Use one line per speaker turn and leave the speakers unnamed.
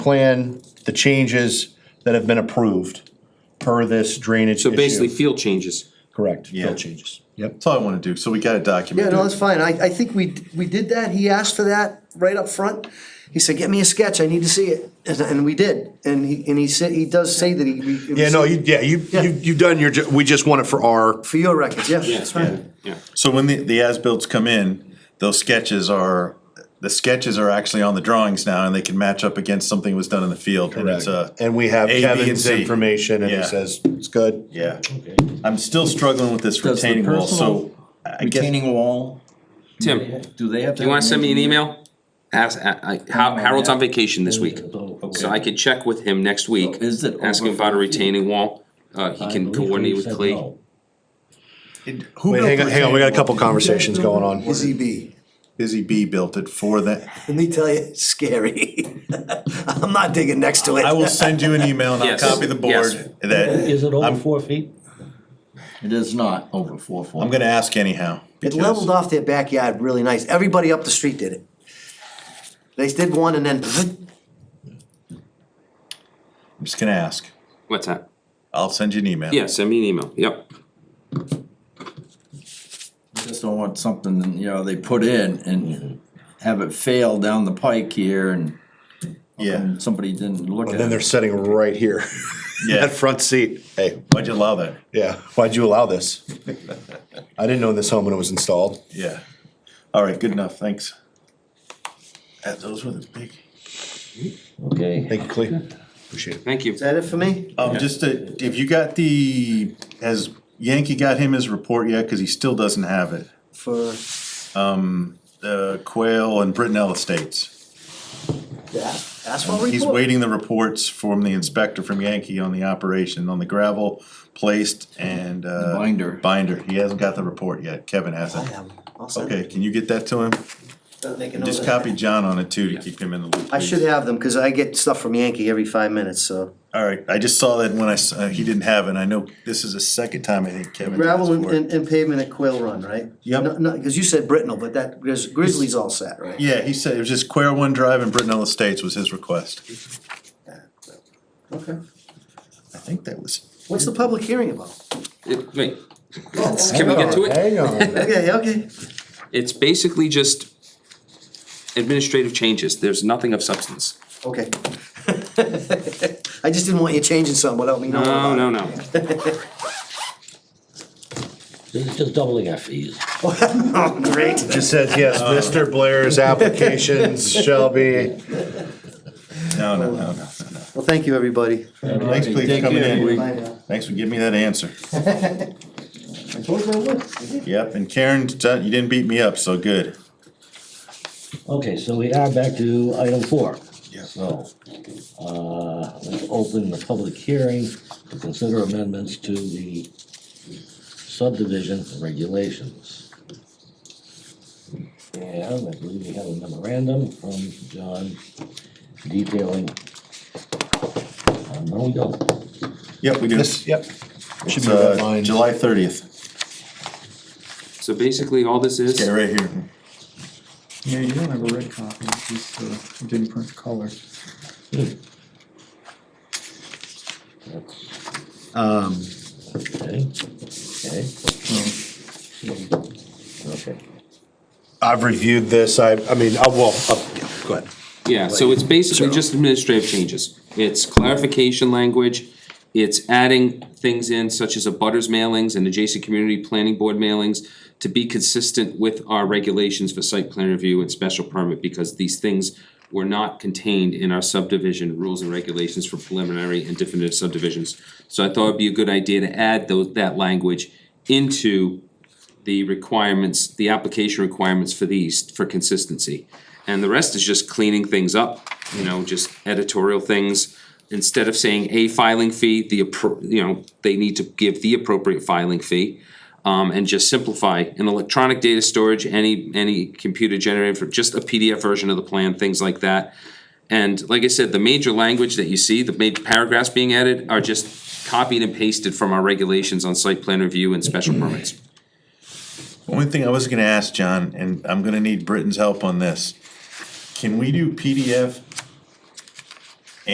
plan, the changes that have been approved per this drainage
So basically,
issue.
field changes.
Correct, field
Yeah.
changes, yep.
That's all I wanna do, so we got it
Yeah,
documented.
no, that's fine. I, I think we, we did that. He asked for that right up front. He said, get me a sketch. I need to see it. And, and we did. And he, and he said, he does say that he. we-
Yeah, no, you, yeah, you, you, you've done your, ju- we just want it for our,
For your records, yeah.
Yeah,
So when the, the as-bills come in, those sketches are, the sketches are actually on the drawings now and they can match up against something that was done in the field and it's uh, a.
uh, and we have
A, B, and
Kevin's
C.
information and he
Yeah.
says, it's good.
Yeah, I'm still struggling with this
Does the
retaining wall, so
personal
I guess,
retaining wall,
Tim,
do they have?
you wanna send me an email? Ask, I, I- Har- Harold's on vacation this week, so I could check with him next week,
Is it
ask him
over
about a
five feet?
retaining wall. Uh, he can coordinate with Clea.
it- who
Wait,
built
hang on,
the
hang on, we got a
retaining wall?
couple conversations going on.
Busy bee.
Busy Bee built it for that.
Let me tell you, it's scary. I'm not digging next to it.
I will send you an email and I'll
Yes,
copy the
yes.
board that,
Is it over
I'm-
four feet?
It is not over four foot.
I'm gonna ask anyhow.
It
because-
leveled off their backyard really nice. Everybody up the street did it. They did one and then,
I'm just gonna ask.
What's that?
I'll send you an email.
Yeah, send me an email, yep.
Just don't want something, you know, they put in and have it fail down the pike here and
Yeah,
and somebody didn't look at it.
And then they're sitting right here, that
yeah.
front seat, hey,
Why'd you allow that?
yeah, why'd you allow this? I didn't own this home when it was installed.
Yeah. All right, good enough, thanks. Uh, Those were the big.
Okay.
Thank you, Clea, appreciate it.
Thank you.
is that it for me?
Oh.
Um, just to, if you got the, has Yankee got him his report yet? Cause he still doesn't have it.
For
Uh, Quail and Brittenell Estates.
that asphalt
He's
report?
waiting the reports from the inspector from Yankee on the operation, on the gravel placed and, uh.
binder.
Binder. He hasn't got the report yet. Kevin hasn't.
I'll send
Okay,
it.
can you get that to him?
Don't make a
And
note
just
of that.
copy John on it too to keep him in the loop.
I should
please.
have them, cause I get stuff from Yankee every five minutes, so.
All right, I just saw that when I, s- uh, he didn't have it. and I know this is the second time I think Kevin.
Gravel
asked
and-
for it.
and, and pavement at Quail Run, right?
Yep.
No, no, cause you said Britnell, but that Grizz- Grizzly's all set, right?
Yeah, he said it was just Quare One Drive and Brittenell Estates was his request.
Okay.
I think that was.
What's the public hearing about?
It- Wait,
Oh,
can we get to it?
Hang on.
Okay, okay.
It's basically just administrative changes, there's nothing of substance.
Okay. I just didn't want you changing something without me knowing.
No,
about
no,
it.
no.
This is just doubling our fees.
Oh, Great.
It says, yes, Mr. Blair's applications shall be.
No, no, no, no, no, no.
Well, thank you, everybody.
Thanks, please, for coming in.
Bye now.
Thanks for giving me that answer.
I told you I would.
Yep, and Karen, t- you didn't beat me up, so good.
Okay, so we are back to item four.
Yeah.
So, uh, let's open the public hearing to consider amendments to the subdivision regulations. And I believe we have a memorandum from John detailing. Uh, No, we don't.
Yep, we do.
This,
It's,
yep. Should be red
uh,
lines.
July thirtieth.
So basically, all this is.
Okay, right here.
Yeah, you don't have a red copy, it's just, uh, didn't print the color.
Hmm. That's-
Um.
Okay, okay, okay.
I've reviewed this, I, I mean, I will, oh, yeah, go ahead.
Yeah, so it's basically just administrative changes. It's clarification language, it's adding things in such as a butters mailings and adjacent community planning board mailings to be consistent with our regulations for site plan review and special permit, because these things were not contained in our subdivision rules and regulations for preliminary and definitive subdivisions. So I thought it'd be a good idea to add those, that language into the requirements, the application requirements for these, for consistency. And the rest is just cleaning things up, you know, just editorial things. Instead of saying a filing fee, the, appro- you know, they need to give the appropriate filing fee. Um, and just simplify an electronic data storage, any, any computer generated for, just a PDF version of the plan, things like that. And like I said, the major language that you see, the major paragraphs being added are just copied and pasted from our regulations on site plan review and special permits.
Only thing I was gonna ask, John, and I'm gonna need Britton's help on this. Can we do PDF